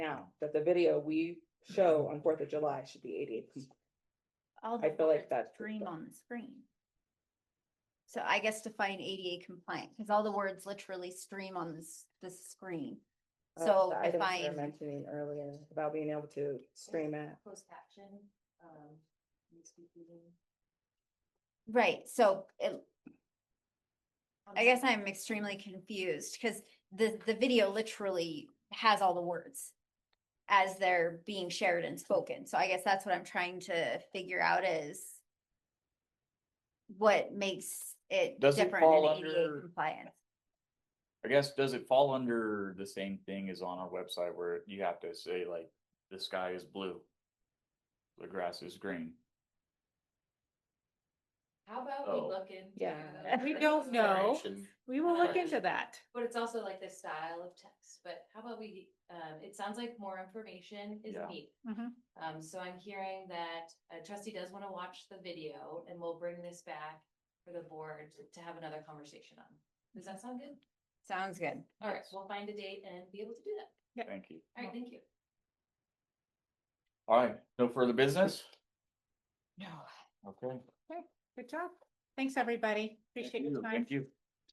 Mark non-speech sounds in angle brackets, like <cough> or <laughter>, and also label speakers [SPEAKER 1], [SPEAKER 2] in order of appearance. [SPEAKER 1] now, that the video we show on Fourth of July should be eighty-eight people.
[SPEAKER 2] All
[SPEAKER 1] I
[SPEAKER 2] the
[SPEAKER 1] feel like
[SPEAKER 2] words
[SPEAKER 1] that's the
[SPEAKER 2] Dream
[SPEAKER 1] stuff.
[SPEAKER 2] on the screen. So I guess define ADA compliant, because all the words literally stream on this, this screen.
[SPEAKER 1] Uh,
[SPEAKER 2] So
[SPEAKER 1] the items we were
[SPEAKER 2] define,
[SPEAKER 1] Mentioning earlier about being able to stream it.
[SPEAKER 3] Post action, um, needs to be given.
[SPEAKER 2] right, so it-
[SPEAKER 3] Um,
[SPEAKER 2] I guess I'm extremely confused, because the, the video literally has all the words as they're being shared and spoken, so I guess that's what I'm trying to figure out is what makes it
[SPEAKER 4] Does it
[SPEAKER 2] different and
[SPEAKER 4] fall
[SPEAKER 2] ADA
[SPEAKER 4] under-
[SPEAKER 2] compliant.
[SPEAKER 4] I guess, does it fall under the same thing as on our website where you have to say like, the sky is blue? The grass is green.
[SPEAKER 3] How about
[SPEAKER 4] Oh.
[SPEAKER 3] we look in?
[SPEAKER 1] <laughs> Yeah.
[SPEAKER 5] We don't know. We will look into that.
[SPEAKER 3] But it's also like the style of text, but how about we, um, it sounds like more information is
[SPEAKER 4] Yeah.
[SPEAKER 3] needed.
[SPEAKER 2] Mhm.
[SPEAKER 3] Um, so I'm hearing that a trustee does wanna watch the video and we'll bring this back for the board to- to have another conversation on. Does that sound good?
[SPEAKER 2] Sounds good.
[SPEAKER 3] All right, we'll find a date and be able to do that.
[SPEAKER 4] Thank you.
[SPEAKER 3] All right, thank you.
[SPEAKER 4] All right, no further business? No. Okay.
[SPEAKER 5] Good job. Thanks, everybody. Appreciate
[SPEAKER 4] Thank
[SPEAKER 5] your
[SPEAKER 4] you.
[SPEAKER 5] time.
[SPEAKER 4] Thank you.